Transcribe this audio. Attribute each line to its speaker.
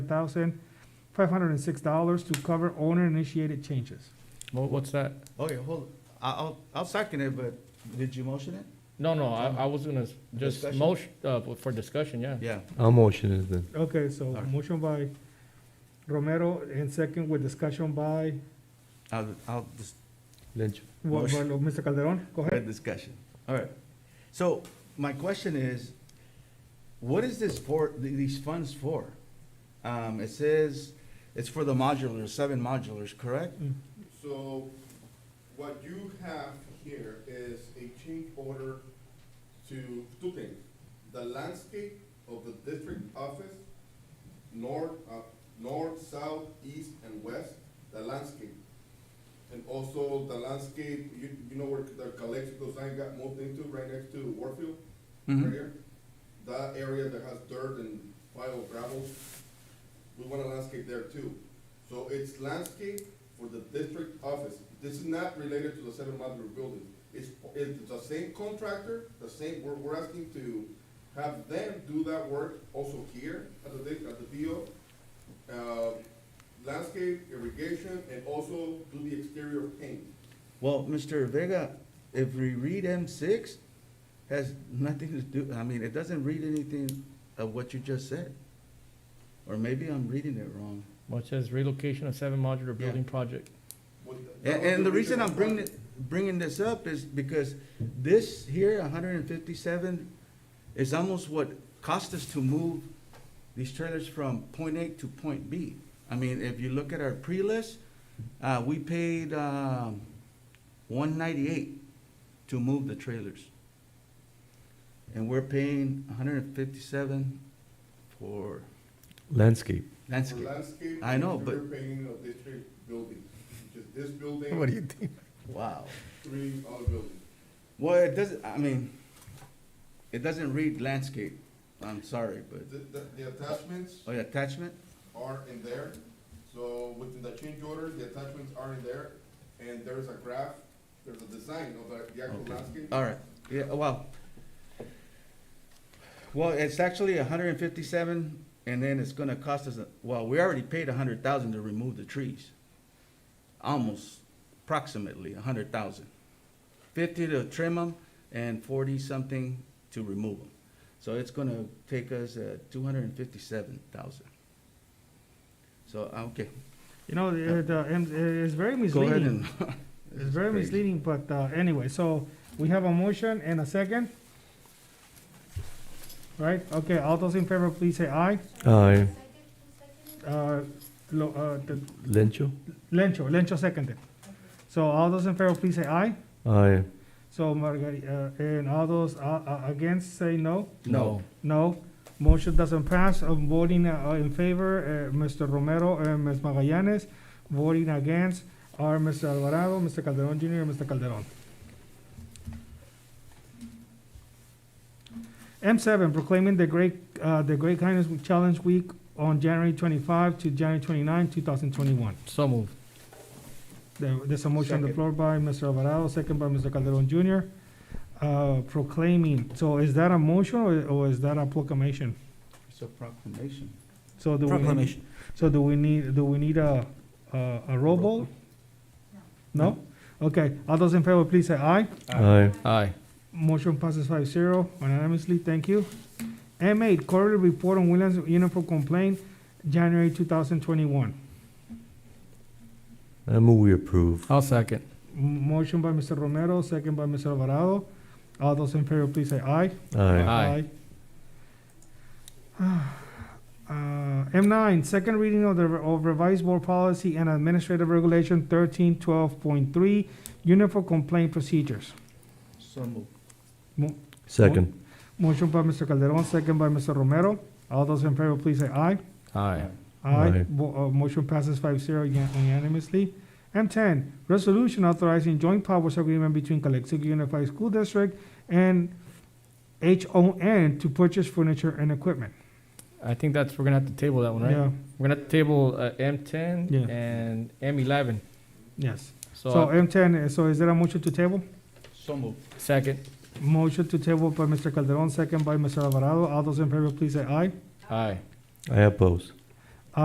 Speaker 1: thousand five hundred and six dollars to cover owner-initiated changes.
Speaker 2: Wha- What's that?
Speaker 3: Okay, hold, I, I'll, I'll second it, but did you motion it?
Speaker 2: No, no, I, I was gonna s- just
Speaker 3: Discussion?
Speaker 2: motion, uh, for discussion, yeah.
Speaker 3: Yeah.
Speaker 4: I'll motion it then.
Speaker 1: Okay, so
Speaker 3: Alright.
Speaker 1: motion by Romero and second with discussion by,
Speaker 3: I'll, I'll, dis-
Speaker 4: Lynch.
Speaker 1: well,
Speaker 3: Motion.
Speaker 1: well, Mr. Calderon, go
Speaker 3: Good
Speaker 1: ahead.
Speaker 3: discussion. All right. So my question is, what is this for, th- these funds for? Um, it says it's for the modulars, seven modulars, correct?
Speaker 5: So what you have here is a change order to two things. The landscape of the district office, north, uh, north, south, east, and west, the landscape. And also the landscape, you, you know where the Calexico sign got moved into, right next to Warfield? Right here? That area that has dirt and pile of gravel, we want a landscape there too. So it's landscape for the district office. This is not related to the seven modular building. It's, it's the same contractor, the same, we're, we're asking to have them do that work also here at the, di- at the DO. Uh, landscape, irrigation, and also do the exterior paint.
Speaker 3: Well, Mr. Vega, if we read M six, has nothing to do, I mean, it doesn't read anything of what you just said. Or maybe I'm reading it wrong.
Speaker 2: What says relocation of seven modular
Speaker 3: Yeah.
Speaker 2: building project.
Speaker 5: with
Speaker 3: And, and the reason I'm bringing, it- bringing this up is because this here, hundred and fifty-seven, is almost what cost us to move these trailers from point A to point B. I mean, if you look at our pre-list, uh, we paid, um, one ninety-eight to move the trailers. And we're paying hundred and fifty-seven for
Speaker 4: Landscape.
Speaker 5: For
Speaker 3: landscape.
Speaker 5: landscape.
Speaker 3: I know,
Speaker 5: interior Painting of district building, which is this
Speaker 4: What do
Speaker 5: building,
Speaker 4: you think?
Speaker 3: Wow.
Speaker 5: three other buildings.
Speaker 3: Well, it doesn't, I mean, it doesn't read landscape. I'm sorry, but,
Speaker 5: The, the, the attachments
Speaker 3: oh, yeah, attachment?
Speaker 5: are in there. So within the change order, the attachments are in there, and there's a graph, there's a design of the, the actual
Speaker 3: Okay.
Speaker 5: landscape.
Speaker 3: All right, yeah, well. Well, it's actually hundred and fifty-seven, and then it's gonna cost us, a- well, we already paid a hundred thousand to remove the trees. Almost, approximately a hundred thousand. Fifty to trim them and forty-something to remove them. So it's gonna take us, uh, two hundred and fifty-seven thousand. So, uh, okay,
Speaker 1: You know, the, the, M- it's very
Speaker 3: go ahead
Speaker 1: misleading.
Speaker 3: and.
Speaker 1: It's very
Speaker 3: Crazy.
Speaker 1: misleading, but, uh, anyway, so we have a motion and a second. Right, okay, all those in favor, please say aye.
Speaker 4: Aye.
Speaker 1: Uh, Lo, uh, the-
Speaker 4: Lencho?
Speaker 1: Lencho, Lencho seconded. So all those in favor, please say aye.
Speaker 4: Aye.
Speaker 1: So Margarita, uh, and all those, uh, uh, against, say no.
Speaker 3: No.
Speaker 1: No, motion doesn't pass. I'm voting uh, in favor, uh, Mr. Romero and Ms. Magallanes. Voting against are Mr. Alvarado, Mr. Calderon Jr., and Mr. Calderon. M7, proclaiming the Great, uh, the Great Kindness Challenge Week on January 25 to January 29, 2021.
Speaker 2: So moved.
Speaker 1: There- There's a motion on the
Speaker 3: Second.
Speaker 1: floor by Mr. Alvarado, second by Mr. Calderon Jr., uh, proclaiming. So is that a motion or- or is that a proclamation?
Speaker 3: It's a proclamation.
Speaker 1: So do we need, so do we need, do we need a, a, a roll call? No? Okay, all those in favor, please say aye.
Speaker 4: Aye.
Speaker 2: Aye.
Speaker 1: Motion passes five zero unanimously, thank you. M eight, quarterly report on Williams uniform complaint, January two thousand twenty-one.
Speaker 4: I move we approve.
Speaker 2: I'll second.
Speaker 1: Motion by Mr. Romero, second by Mr. Alvarado. All those in favor, please say aye. Ah,
Speaker 4: Aye.
Speaker 2: Aye.
Speaker 1: Uh, M nine, second reading of the re- of revised board policy and administrative regulation thirteen twelve point three, uniform complaint procedures.
Speaker 3: So moved.
Speaker 4: Second.
Speaker 1: Motion by Mr. Calderon, second by Mr. Romero. All those in favor, please say aye.
Speaker 2: Aye.
Speaker 1: Aye.
Speaker 4: Aye.
Speaker 1: Bo- uh, motion passes five zero unanimously. M ten, resolution authorizing joint powers agreement between Calexico Unified School District and H O N to purchase furniture and equipment.
Speaker 2: I think that's, we're gonna have to table that one, right?
Speaker 1: Yeah,
Speaker 2: We're gonna have to table, uh, M ten
Speaker 1: Yeah.
Speaker 2: and M eleven.
Speaker 1: yes. So
Speaker 2: So, uh,
Speaker 1: M ten, so is there a motion to table?
Speaker 3: So moved.
Speaker 2: second.
Speaker 1: Motion to table by Mr. Calderon, second by Mr. Alvarado. All those in favor, please say aye.
Speaker 2: Aye.
Speaker 4: I oppose.